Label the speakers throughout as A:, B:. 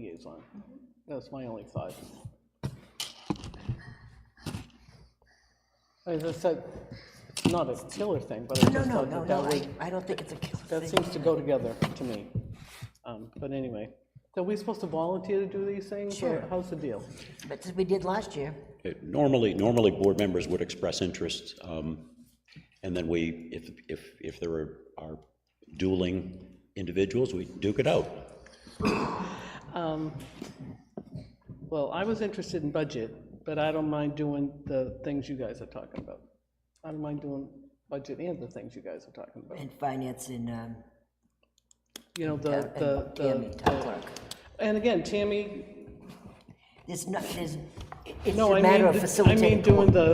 A: liaison. That's my only thought. As I said, it's not a killer thing, but I
B: No,
A: just
B: no,
A: thought
B: no,
A: that
B: no,
A: that
B: I,
A: would,
B: I don't think it's a killer
A: that
B: thing.
A: seems to go together to me. Um, But anyway, so are we supposed to volunteer to do these things? or
B: Sure.
A: How's the deal?
B: But as we did last year,
C: Okay, Normally, normally, board members would express interest, um, and then we, if, if, if there are- are dueling individuals, we duke it out.
A: Well, I was interested in budget, but I don't mind doing the things you guys are talking about. I don't mind doing budget and the things you guys are talking about.
B: and finance and, um,
A: You know, the,
B: and
A: the,
B: Tammy,
A: the,
B: town clerk.
A: and again, Tammy,
B: There's not, there's, it- it's
A: No,
B: a
A: I
B: matter
A: mean,
B: of
A: th- I mean
B: facilitating.
A: doing the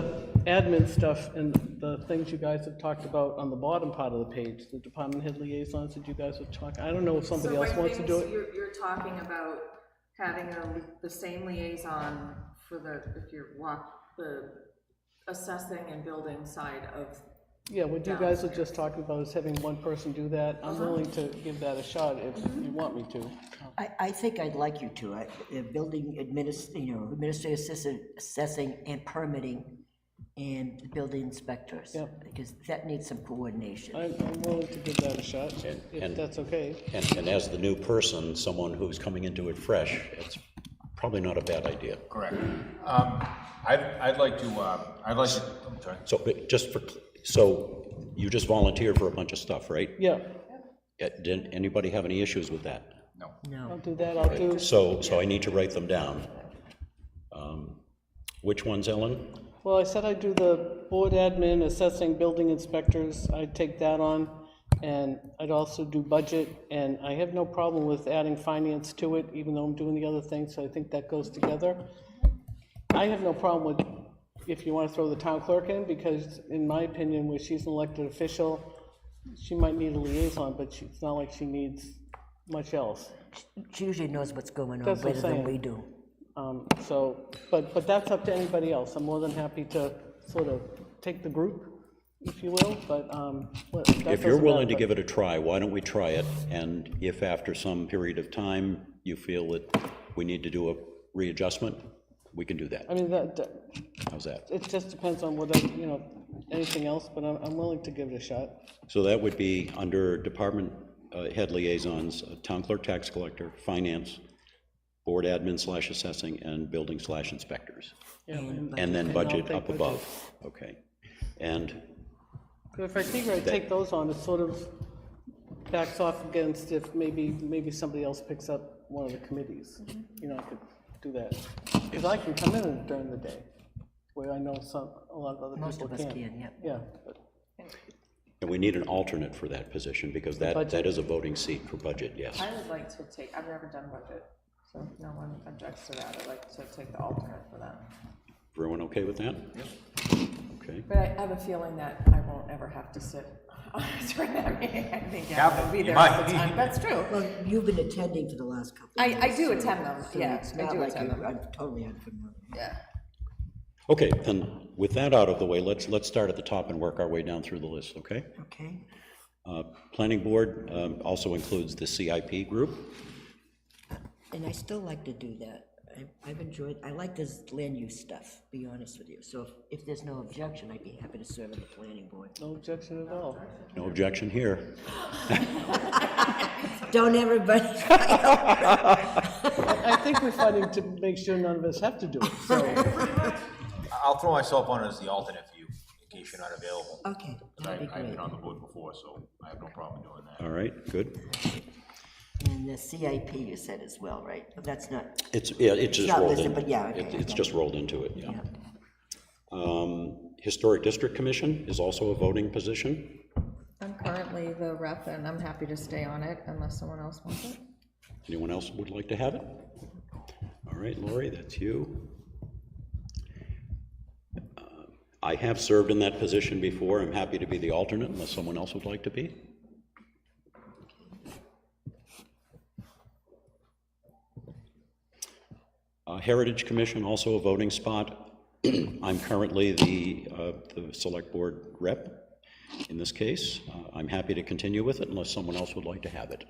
A: admin stuff and the things you guys have talked about on the bottom part of the page, the department head liaisons that you guys have talked, I don't know if somebody
D: So
A: else
D: by
A: wants to do
D: things,
A: it.
D: you're, you're talking about having a, the same liaison for the, if you're walk, the assessing and building side of,
A: Yeah, what you guys were just talking about is having one person do that. I'm willing to give that a shot if you want me to.
B: I, I think I'd like you to, I, the building adminis, you know, administrative assistant, assessing and permitting and the building inspectors.
A: Yep.
B: Because that needs some coordination.
A: I'm, I'm willing to give that a shot, if
C: and-
A: that's okay.
C: And, and as the new person, someone who's coming into it fresh, it's probably not a bad idea.
E: Correct. Um, I'd, I'd like to, um, I'd like to, I'm sorry.
C: So, but just for, so you just volunteered for a bunch of stuff, right?
A: Yeah,
C: Uh, Didn't anybody have any issues with that?
E: No.
A: I'll
B: No,
A: do that, I'll do,
C: So, so I need to write them down. Um, Which ones, Ellen?
A: well, I said I'd do the board admin, assessing building inspectors, I'd take that on, and I'd also do budget, and I have no problem with adding finance to it, even though I'm doing the other thing, so I think that goes together. I have no problem with, if you want to throw the town clerk in, because in my opinion, where she's an elected official, she might need a liaison, but she- it's not like she needs much else.
B: she usually knows what's going on
A: That's what I'm
B: better
A: saying.
B: than we do.
A: Um, So, but, but that's up to anybody else. I'm more than happy to sort of take the group, if you will, but um, what- that
C: If you're
A: doesn't
C: willing to
A: matter,
C: give it a try, why don't we try it? And if after some period of time you feel that we need to do a readjustment, we can do
A: but- I
C: that.
A: mean, that, that-
C: How's that?
A: it just depends on whether, you know, anything else, but I'm, I'm willing to give it a shot.
C: So that would be under department uh, head liaisons, uh, town clerk, tax collector, finance, board admin slash assessing, and building slash inspectors. And then budget
A: I'll
C: up
A: take
C: above. Okay. And,
A: But If I figure I take those on, it sort of backs off against if maybe, maybe somebody else picks up one of the committees. You know, I could do that. Because I can come in during the day, where I know some, a lot of other people
B: Most
A: can't.
B: of us can, yeah.
A: Yeah, but
C: and we need an alternate for that position because that, that is a voting seat for budget, yes.
D: I would like to take, I've never done budget, so if no one objects to that, I'd like to take the alternate for that.
C: Everyone okay with that? Okay.
D: But I have a feeling that I won't ever have to sit during that meeting, I think I will
E: but
D: be
E: you
D: there all
E: might.
D: the time, that's true.
B: Well, Um, you've been attending for the last couple of
D: I-
B: years.
D: I do
B: so-
D: attend them,
B: so
D: yeah,
B: it's
D: I
B: not
D: do
B: like
D: attend
B: you-
D: them.
B: I'm totally unfamiliar.
D: Yeah.
C: Okay, then, with that out of the way, let's, let's start at the top and work our way down through the list, okay?
B: Okay,
C: Uh, Planning Board um, also includes the CIP group.
B: and I still like to do that. I- I've enjoyed, I like this land use stuff, be honest with you. So if- if there's no objection, I'd be happy to serve on the planning board.
A: no objection at all.
C: No objection here.
B: Don't everybody,
A: I think we're fighting to make sure none of us have to do it, so,
E: I'll throw myself on as the alternate for you, in case you're not available.
B: okay, that'd be
E: I- I've
B: great.
E: been on the board before, so I have no problem doing that.
C: All right, good.
B: And the CIP you said as well, right? But That's not,
C: It's, yeah, it's just
B: not
C: rolled
B: listed,
C: in.
B: but yeah, okay,
C: It- It's
B: okay.
C: just rolled into it, yeah.
B: yeah.
C: Um, Historic District Commission is also a voting position.
D: I'm currently the rep, and I'm happy to stay on it unless someone else wants it.
C: Anyone else would like to have it? All right, Lori, that's you. Uh, I have served in that position before. I'm happy to be the alternate unless someone else would like to be. Uh, Heritage Commission, also a voting spot. I'm currently the, uh, the Select Board rep in this case. Uh, I'm happy to continue with it unless someone else would like to have it.